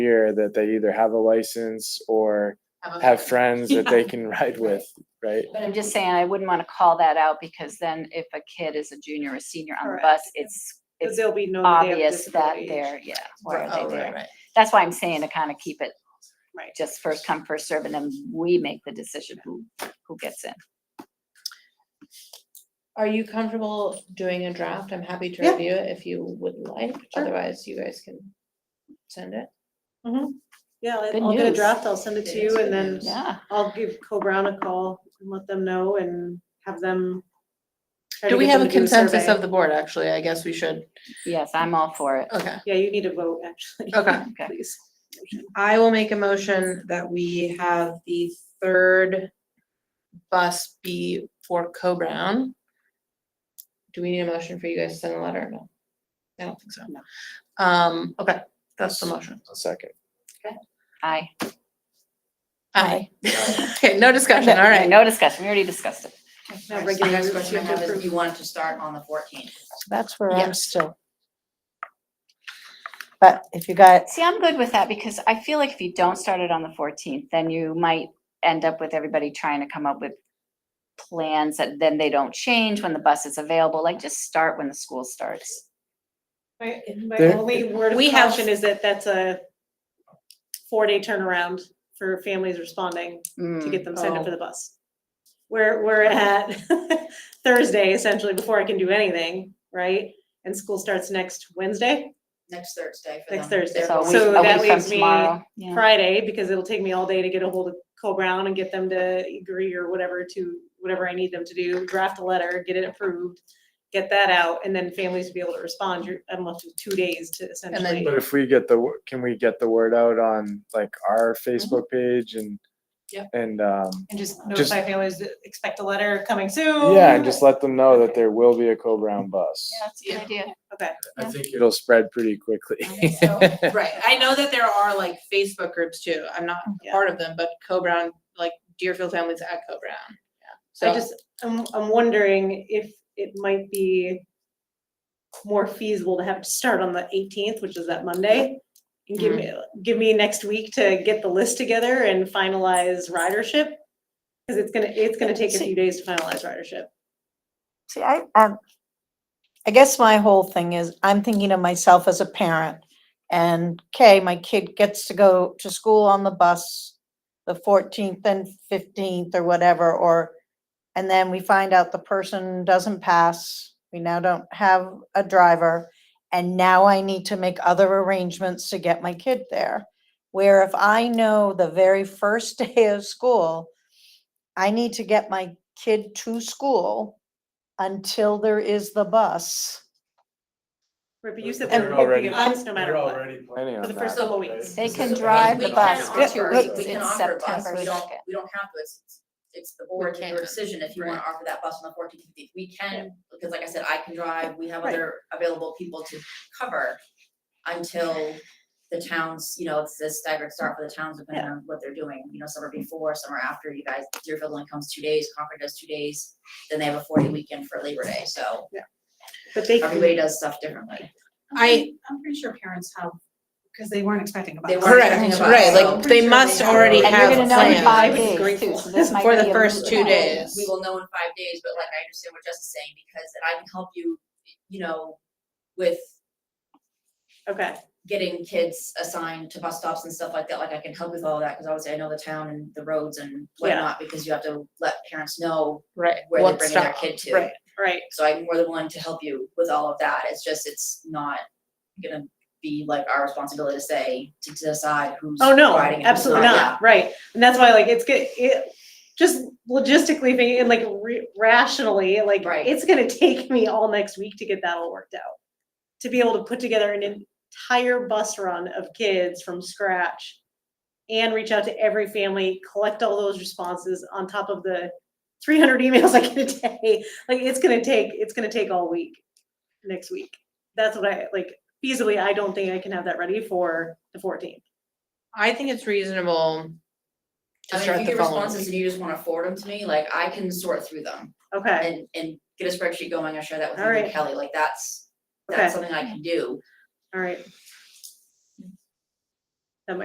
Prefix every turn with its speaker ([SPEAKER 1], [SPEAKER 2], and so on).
[SPEAKER 1] here that they either have a license or have friends that they can ride with, right?
[SPEAKER 2] But I'm just saying, I wouldn't want to call that out because then if a kid is a junior or senior on the
[SPEAKER 3] Correct.
[SPEAKER 2] bus, it's,
[SPEAKER 3] Because
[SPEAKER 2] it's
[SPEAKER 3] they'll be known that they have
[SPEAKER 2] obvious that
[SPEAKER 3] disability.
[SPEAKER 2] they're, yeah, why
[SPEAKER 3] Right.
[SPEAKER 2] are
[SPEAKER 4] Oh,
[SPEAKER 2] they
[SPEAKER 4] right,
[SPEAKER 2] there?
[SPEAKER 4] right.
[SPEAKER 2] That's why I'm saying to kind of keep it
[SPEAKER 3] Right.
[SPEAKER 2] just first come, first serve, and then we make the decision who, who gets in.
[SPEAKER 4] Are you comfortable doing a draft? I'm happy to
[SPEAKER 3] Yeah.
[SPEAKER 4] review it if you would like,
[SPEAKER 3] Sure.
[SPEAKER 4] otherwise you guys can send it.
[SPEAKER 3] Mm-hmm. Yeah,
[SPEAKER 2] Good
[SPEAKER 3] I'll I'll get a
[SPEAKER 2] news.
[SPEAKER 3] draft, I'll send it to you and then
[SPEAKER 2] Yeah.
[SPEAKER 3] I'll give Co Brown a call and let them know and have them. try to
[SPEAKER 4] Do we
[SPEAKER 3] get
[SPEAKER 4] have
[SPEAKER 3] them
[SPEAKER 4] a
[SPEAKER 3] to do
[SPEAKER 4] consensus
[SPEAKER 3] survey.
[SPEAKER 4] of the board, actually? I guess we should,
[SPEAKER 2] Yes, I'm all for it.
[SPEAKER 4] okay,
[SPEAKER 3] Yeah, you need a vote, actually.
[SPEAKER 4] okay.
[SPEAKER 2] Okay.
[SPEAKER 3] Please.
[SPEAKER 4] I will make a motion that we have the third bus be for Co-Brown. Do we need a motion for you guys to send a letter? No. I don't think so.
[SPEAKER 3] No.
[SPEAKER 4] Um, okay, that's the motion.
[SPEAKER 1] A second.
[SPEAKER 2] Aye.
[SPEAKER 4] Aye. Okay, no discussion, all right.
[SPEAKER 2] No discussion. We already discussed it.
[SPEAKER 3] Now,
[SPEAKER 5] Alright, so
[SPEAKER 3] regular
[SPEAKER 5] The next
[SPEAKER 3] moves,
[SPEAKER 5] question
[SPEAKER 3] you
[SPEAKER 5] I
[SPEAKER 3] have
[SPEAKER 5] have
[SPEAKER 3] to
[SPEAKER 5] is,
[SPEAKER 3] approve.
[SPEAKER 5] you want to start on the fourteenth?
[SPEAKER 6] That's where I'm
[SPEAKER 4] Yes.
[SPEAKER 6] still. But if you got,
[SPEAKER 2] See, I'm good with that because I feel like if you don't start it on the fourteenth, then you might end up with everybody trying to come up with plans that then they don't change when the bus is available. Like just start when the school starts.
[SPEAKER 3] My, my
[SPEAKER 1] There-
[SPEAKER 3] only word of
[SPEAKER 4] We have-
[SPEAKER 3] caution is that that's a four-day turnaround for families responding to
[SPEAKER 2] Mm,
[SPEAKER 3] get them sent up
[SPEAKER 4] Oh.
[SPEAKER 3] for the bus. We're, we're at Thursday essentially before I can do anything, right? And school starts next Wednesday,
[SPEAKER 5] Next Thursday for them.
[SPEAKER 3] Next Thursday.
[SPEAKER 2] So a week,
[SPEAKER 3] So
[SPEAKER 2] a
[SPEAKER 3] that
[SPEAKER 2] week from
[SPEAKER 3] leaves me
[SPEAKER 2] tomorrow. Yeah.
[SPEAKER 3] Friday, because it'll take me all day to get a hold of Cole Brown and get them to agree or whatever to, whatever I need them to do, draft a letter, get it approved, get that out, and then families to be able to respond. You're, I'm left with two days to essentially.
[SPEAKER 1] But if we get the, wo- can we get the word out on like our
[SPEAKER 3] Mm-hmm.
[SPEAKER 1] Facebook page and?
[SPEAKER 5] Yep.
[SPEAKER 1] And, um,
[SPEAKER 3] And just
[SPEAKER 1] Just-
[SPEAKER 3] notify families, that expect a letter coming soon.
[SPEAKER 1] Oh, yeah, and just let them know that there will be a Co-Brown bus.
[SPEAKER 2] Yeah, that's a good idea.
[SPEAKER 3] Okay,
[SPEAKER 1] I think it'll spread pretty quickly.
[SPEAKER 4] Right, I know that there are like Facebook groups too, I'm not a
[SPEAKER 3] Yeah.
[SPEAKER 4] part of them, but Co-Brown, like Deerfield families at Co-Brown.
[SPEAKER 3] I
[SPEAKER 4] So,
[SPEAKER 3] just, I'm, I'm wondering if it might be more feasible to have it start on the eighteenth, which is that Monday. And give me,
[SPEAKER 2] Mm-hmm.
[SPEAKER 3] give me next week to get the list together and finalize ridership. Cause it's gonna, it's gonna take a few days to finalize ridership.
[SPEAKER 6] see, I, um, I guess my whole thing is, I'm thinking of myself as a parent. And, okay, my kid gets to go to school on the bus the fourteenth and fifteenth or whatever, or, and then we find out the person doesn't pass. We now don't have a driver. And now I need to make other arrangements to get my kid there. Where if I know the very first day of school, I need to get my kid to school until there is the bus.
[SPEAKER 3] Right, but you said
[SPEAKER 6] And
[SPEAKER 3] they're
[SPEAKER 1] already-
[SPEAKER 3] picking us no matter what.
[SPEAKER 1] Planning
[SPEAKER 3] For
[SPEAKER 1] on
[SPEAKER 3] the first
[SPEAKER 1] that.
[SPEAKER 3] couple weeks.
[SPEAKER 2] They can
[SPEAKER 5] So,
[SPEAKER 2] drive
[SPEAKER 5] we
[SPEAKER 2] the
[SPEAKER 5] can
[SPEAKER 2] bus for
[SPEAKER 6] Yeah,
[SPEAKER 2] two
[SPEAKER 6] wait,
[SPEAKER 2] weeks.
[SPEAKER 5] We can
[SPEAKER 2] It's
[SPEAKER 5] offer a bus,
[SPEAKER 2] September
[SPEAKER 5] we don't,
[SPEAKER 2] second.
[SPEAKER 5] we don't have to, it's, it's- it's the board's and your
[SPEAKER 4] can't.
[SPEAKER 5] decision if you wanna
[SPEAKER 4] Right.
[SPEAKER 5] offer that bus on the fourteenth, fifteenth. We can, because like I said, I can drive, we have
[SPEAKER 6] Right.
[SPEAKER 5] other available people to cover until the towns, you know, it's a staggered start for the towns depending on what they're doing, you know, some are before, some are after, you guys, Deerfield only comes two days, Concord does two days, then they have a forty weekend for Labor Day, so
[SPEAKER 3] But they,
[SPEAKER 5] everybody does stuff differently.
[SPEAKER 4] I,
[SPEAKER 7] I'm pretty sure parents have, because they weren't expecting a
[SPEAKER 5] They
[SPEAKER 7] bus.
[SPEAKER 5] weren't
[SPEAKER 4] correct,
[SPEAKER 5] thinking about it,
[SPEAKER 4] right,
[SPEAKER 5] so
[SPEAKER 4] like
[SPEAKER 5] pretty
[SPEAKER 4] they
[SPEAKER 5] sure
[SPEAKER 4] must
[SPEAKER 5] they have
[SPEAKER 4] already
[SPEAKER 2] And you're
[SPEAKER 4] have
[SPEAKER 2] gonna know in five
[SPEAKER 4] plans.
[SPEAKER 3] plans.
[SPEAKER 2] days too, so this might
[SPEAKER 4] For the
[SPEAKER 2] be a
[SPEAKER 4] first
[SPEAKER 2] moot
[SPEAKER 4] two
[SPEAKER 2] point.
[SPEAKER 4] days.
[SPEAKER 5] We will know in five days, but like I understand what Jess is saying, because that I can help you, you know, with
[SPEAKER 3] okay,
[SPEAKER 5] getting kids assigned to bus stops and stuff like that, like I can help with all that, because obviously I know the town and the roads and whatnot, because you have to let parents know
[SPEAKER 4] Right,
[SPEAKER 5] where they're
[SPEAKER 4] what's
[SPEAKER 5] bringing their
[SPEAKER 4] up,
[SPEAKER 5] kid to.
[SPEAKER 4] right.
[SPEAKER 3] right,
[SPEAKER 5] So I'm more than willing to help you with all of that, it's just, it's not gonna be like our responsibility to say, to decide who's
[SPEAKER 3] oh no,
[SPEAKER 5] riding and who's
[SPEAKER 3] absolutely
[SPEAKER 5] yeah.
[SPEAKER 3] not, right, and that's why like it's good, it, just logistically thinking, and, like re- rationally, like,
[SPEAKER 5] Right.
[SPEAKER 3] it's gonna take me all next week to get that all worked out. To be able to put together an entire bus run of kids from scratch and reach out to every family, collect all those responses on top of the three hundred emails I get a day, like, it's gonna take, it's gonna take all week, next week. That's what I, like, feasibly, I don't think I can have that ready for the fourteenth.
[SPEAKER 4] I think it's reasonable to
[SPEAKER 5] I mean,
[SPEAKER 4] start
[SPEAKER 5] if you
[SPEAKER 4] the
[SPEAKER 5] get
[SPEAKER 4] following
[SPEAKER 5] responses
[SPEAKER 4] week.
[SPEAKER 5] and you just wanna forward them to me, like I can sort through them.
[SPEAKER 3] Okay,
[SPEAKER 5] and, and get a spreadsheet going, I share that with you
[SPEAKER 3] Alright.
[SPEAKER 5] and Kelly, like that's,
[SPEAKER 3] Okay.
[SPEAKER 5] that's something I can do.
[SPEAKER 3] all right.